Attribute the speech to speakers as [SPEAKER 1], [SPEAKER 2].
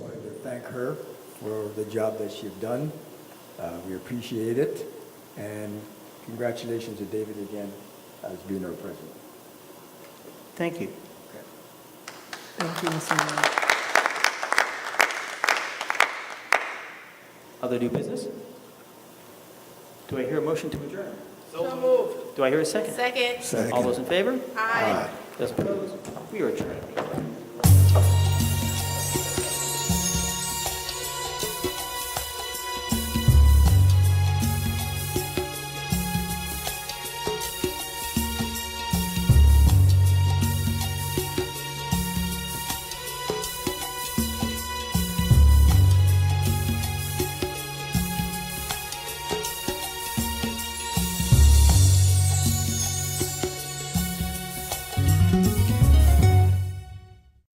[SPEAKER 1] thank her for the job that she's done. Uh, We appreciate it, and congratulations to David again as being our president.
[SPEAKER 2] Thank you.
[SPEAKER 1] Okay.
[SPEAKER 3] Thank you, Mr. Mayor.
[SPEAKER 2] Other new business? Do I hear a motion to adjourn? So moved. Do I hear a second?
[SPEAKER 4] Second.
[SPEAKER 2] All those in favor?
[SPEAKER 4] Aye.
[SPEAKER 2] Those opposed? We are adjourned.